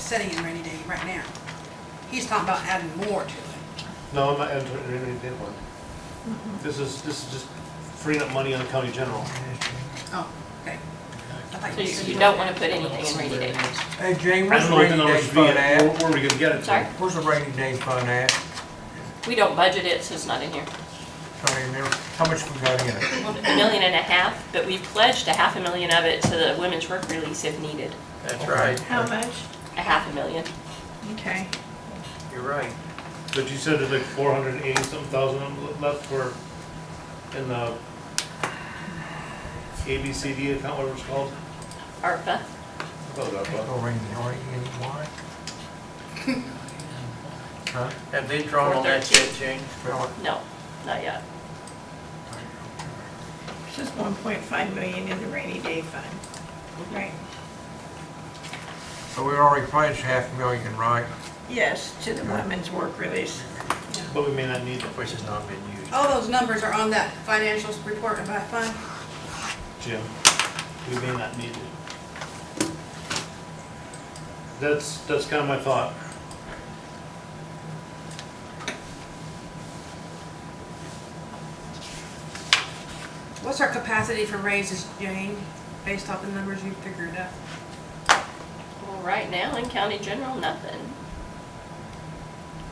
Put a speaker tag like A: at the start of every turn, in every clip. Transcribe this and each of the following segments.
A: setting in rainy day right now. He's talking about adding more to it.
B: No, I'm not entering any bid one. This is, this is just freeing up money on the county general.
A: Oh, okay. I thought
C: So
A: you
C: you-
A: said-
C: you don't want to put anything in rainy day.
D: Hey, Jane,
B: I
D: where's
B: don't
D: the
B: know what the numbers
D: rainy day
B: would be, at.
D: fund at?
B: where where we gonna get it
C: Sorry?
B: to.
D: Where's the rainy day fund at?
C: We don't budget it, so it's not in here.
D: Trying to remember, how much we got in it?
C: A million and a half, but we've pledged a half a million of it to the women's work release if needed.
E: That's right,
F: How much?
C: A half a million.
F: Okay.
E: you're right.
B: But you said there's like four hundred and eighty something thousand le- left for, in the ABCD account, whatever it's called.
C: ARPA.
B: I thought that was-
D: No rainy, are you in why? Huh?
E: Have they drawn on that yet, Jane?
D: Well,
C: No, not yet.
F: It's just one point five million in the rainy day fund. Right.
D: So we already pledged half a million, right?
F: Yes, to the women's work release.
B: But we may not need it,
E: Which has not been used.
A: All those numbers are on that financials report of that fund.
B: Jim. We may not need it. That's, that's kind of my thought.
A: What's our capacity for raises, Jane, based off the numbers you figured out?
C: Well, right now in county general, nothing.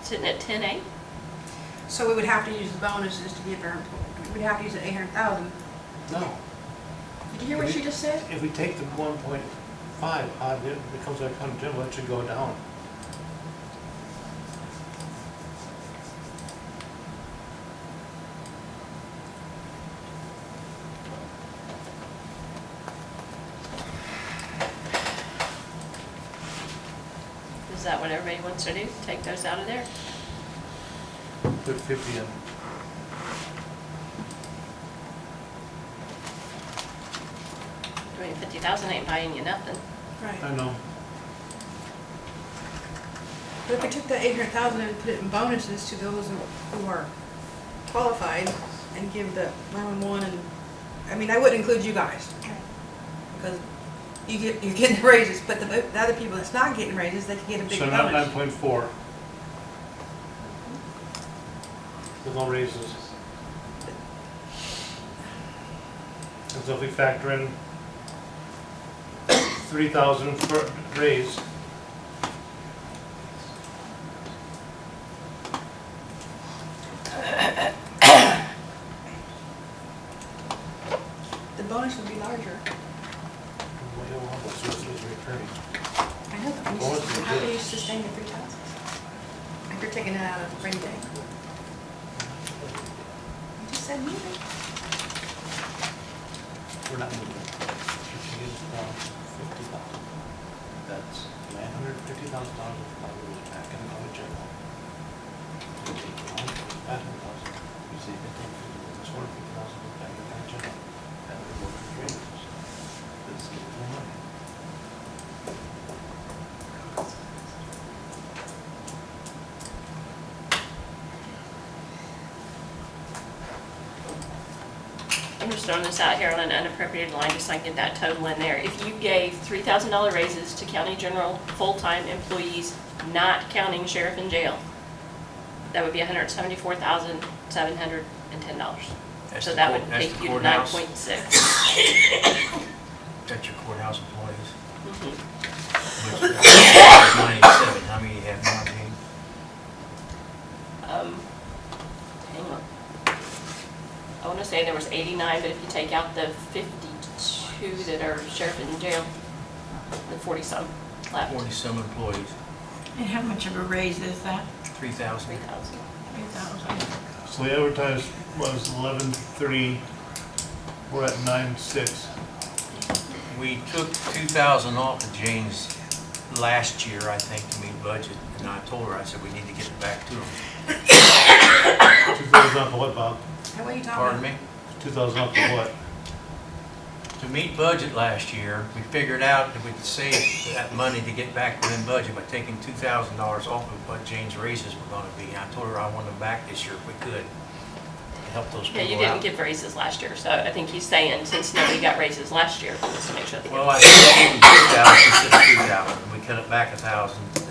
C: Sitting at ten eight.
A: So we would have to use the bonuses to give our, employ- we'd have to use the eight hundred thousand.
B: No.
C: Did you hear what she just said?
B: If we take the one point five out of it, it becomes our county general, it should go down.
C: Is that what everybody wants to do? Take those out of there?
B: Put fifty in.
C: Doing fifty thousand ain't buying you nothing.
A: Right.
B: I know.
A: But if we took that eight hundred thousand and put it in bonuses to those who- who are qualified and give the nine-one-one and, I mean, I wouldn't include you guys. Because you get, you're getting raises, but the, the other people that's not getting raises, they can get a big
B: So now nine
A: bonus.
B: point four. With no raises. And so if we factor in three thousand for raise,
A: The bonus would be larger.
B: well, you'll have those sources returning.
A: I know, but
B: Bonus is
A: how do
B: good.
A: you sustain the three thousand? If you're taking it out of rainy day. You just said moving.
B: We're not moving. If she gives down fifty thousand, that's nine hundred fifty thousand dollars of probably back in the county general. You take the one, five hundred thousand, you save fifteen fifty, that's one fifty thousand back in the county general. That would work for three years. That's giving them money.
C: I'm just throwing this out here on an unappropriated line, just so I can get that total in there. If you gave three thousand dollar raises to county general, full-time employees, not counting sheriff and jail, that would be hundred and seventy-four thousand, seven hundred and ten dollars.
E: That's
C: So
E: the
C: that
E: court-
C: would
E: that's
C: take
E: the
C: you to nine
E: courthouse.
C: point six.
E: That's your courthouse employees.
C: Mhm.
E: which is Ninety-seven, how many you have now, Jane?
C: Um, Hang on. I want to say there was 89, but if you take out the 52 that are sheriff and jail, the 40-some left,
E: Forty-some employees,
F: And how much of a raise is that?
E: three thousand.
C: 3,000.
F: Three thousand.
B: So the advertised was eleven three, we're at nine six.
E: We took two thousand off of Jane's last year, I think, to meet budget, and I told her, I said, we need to get it back to them.
B: Two thousand off of what, Bob?
A: Hey, What are you talking about?
E: Pardon me?
B: Two thousand off of what?
E: To meet budget last year, we figured out that we could save that money to get back within budget by taking two thousand dollars off of what Jane's raises were gonna be. And I told her I wanted them back this year if we could, to help those
C: Yeah, you
E: people
C: didn't
E: out.
C: give raises last year, so I think he's saying, since nobody got raises last year, let's make sure they get
E: Well, I said two thousand, she said two thousand, we cut it back a thousand,